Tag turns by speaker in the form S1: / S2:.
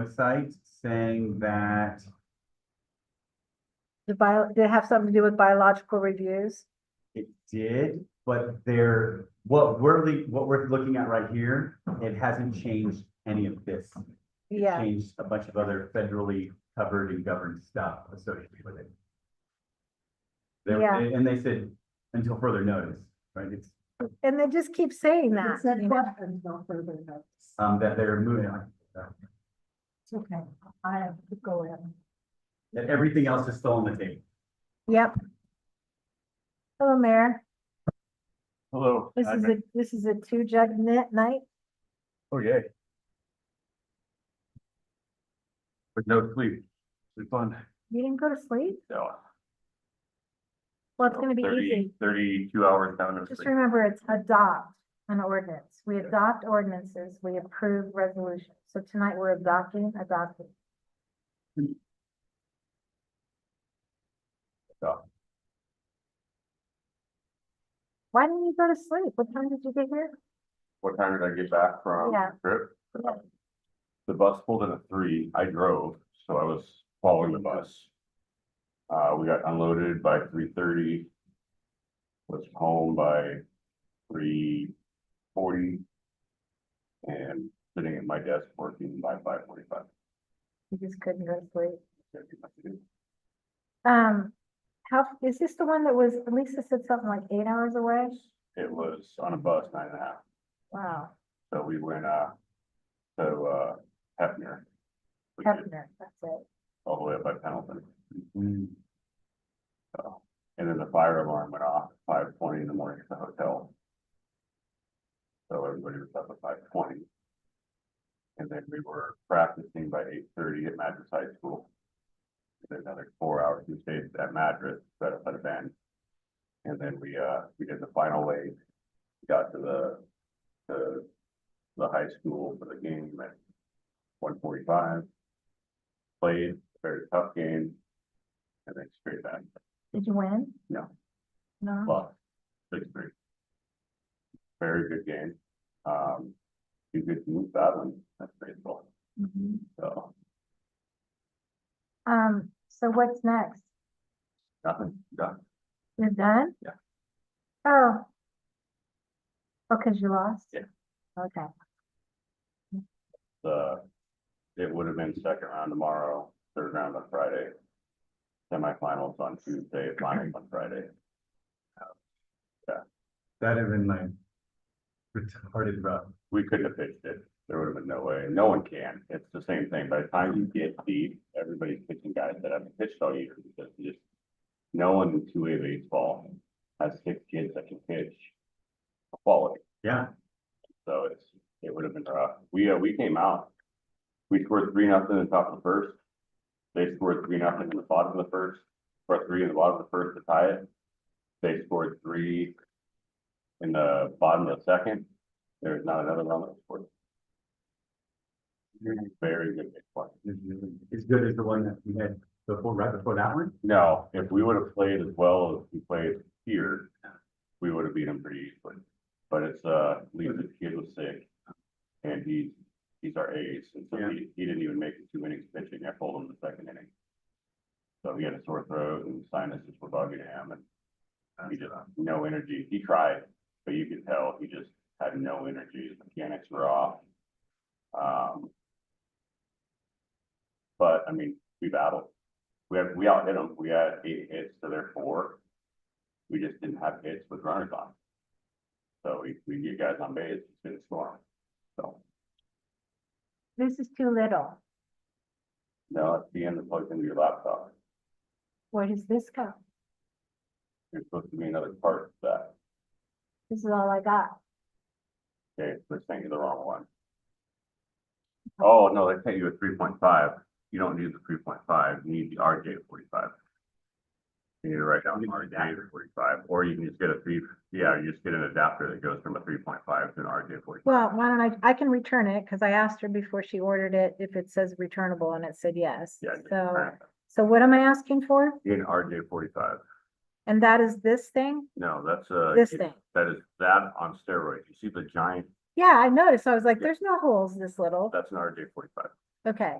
S1: website saying that,
S2: The bio, did it have something to do with biological reviews?
S1: It did, but there, what we're, le- what we're looking at right here, it hasn't changed any of this.
S2: Yeah,
S1: Changed a bunch of other federally covered and governed stuff associated with it. They-
S2: Yeah.
S1: And they said, until further notice, right, it's,
S2: and they just keep saying that.
S3: It's not
S2: you know?
S3: that until further notice.
S1: um, that they're moving on.
S3: It's okay. I have to go in.
S1: That everything else is still on the table.
S2: Yep. Hello, Mayor.
S4: Hello.
S2: This
S4: I'm-
S2: is a, this is a two jug knit night.
S4: Oh, yay. With no sleep. Sleep on.
S2: You didn't go to sleep?
S4: No.
S2: Well, it's gonna be easy.
S4: Thirty-two hours down of
S2: Just
S4: sleep.
S2: remember, it's adopt an ordinance. We adopt ordinances, we approve resolutions. So tonight, we're adopting, adopting.
S4: Adopt.
S2: Why didn't you go to sleep? What time did you get here?
S4: What time did I get back from
S2: Yeah.
S4: the trip?
S2: Yeah.
S4: The bus pulled in at three. I drove, so I was following the bus. Uh, we got unloaded by three thirty. Was home by three forty. And sitting at my desk working by five forty-five.
S2: You just couldn't go to sleep. Um, how, is this the one that was, Lisa said something like eight hours away?
S4: It was on a bus, nine and a half,
S2: Wow,
S4: so we went, uh, to, uh, Hefner. We did
S2: Hefner, that's it.
S4: all the way up by Pendleton.
S1: Mm,
S4: So, and then the fire alarm went off at five twenty in the morning at the hotel. So everybody was up at five twenty. And then we were practicing by eight thirty at Madras High School. Then another four hours we stayed at Madras, set up at a band. And then we, uh, we did the final wave. Got to the, the, the high school for the game at one forty-five. Played, very tough game. And then straight back,
S2: Did you win?
S4: No.
S2: No?
S4: lost, six three. Very good game. Um, you could move that one, that's baseball,
S2: Mhm.
S4: so
S2: Um, so what's next?
S4: nothing, done.
S2: You're done?
S4: Yeah.
S2: Oh. Oh, cause you lost?
S4: Yeah.
S2: Okay,
S4: the, it would have been second round tomorrow, third round on Friday. Semifinals on Tuesday, finals on Friday.
S1: That'd have been like retarded rough.
S4: We couldn't have pitched it. There would have been no way. No one can. It's the same thing. By the time you get deep, everybody's pitching guys that haven't pitched all year because you just. No one in two A baseball has six kids that can pitch. Quality.
S1: Yeah,
S4: So it's, it would have been rough. We, uh, we came out. We scored three nothing in the top of the first. They scored three nothing in the bottom of the first, or three in the bottom of the first to tie it. They scored three. In the bottom of the second. There's not another run that was scored. Very good big play.
S1: it's really- as good as the one that we had before, right before that one.
S4: No, if we would have played as well as we played here, we would have beat them pretty easily. But it's, uh, Lisa's kid was sick. And he, he's our ace, and so
S1: Yeah.
S4: he, he didn't even make it two innings pitching, I pulled him the second inning. So he had a sore throat and sinuses were bugging him and he just, no energy, he tried, but you could tell he just had no energy, his mechanics were off. Um. But, I mean, we battled, we have, we outhit them, we had eight hits to their four. We just didn't have hits with runners on. So we, we get guys on base, it's been a storm, so,
S2: this is too little.
S4: no, at the end, it plugs into your laptop,
S2: Where does this go?
S4: there's supposed to be another part to that,
S2: This is all I got.
S4: okay, so they're sending you the wrong one. Oh, no, they sent you a three point five, you don't need the three point five, you need the RJ forty-five. You need to write down
S1: You need an
S4: RJ forty-five, or you can just get a three, yeah, you just get an adapter that goes from a three point five to an RJ forty-five.
S2: Well, why don't I, I can return it, cause I asked her before she ordered it if it says returnable and it said yes.
S4: Yeah, just
S2: So,
S4: turn
S2: so what am I asking for?
S4: it. In RJ forty-five,
S2: And that is this thing?
S4: no, that's a.
S2: This thing?
S4: That is that on steroids, you see the giant,
S2: Yeah, I noticed. I was like,
S4: Yeah. Uh,
S2: there's no holes this little.
S4: that's an RJ forty-five,
S2: Okay,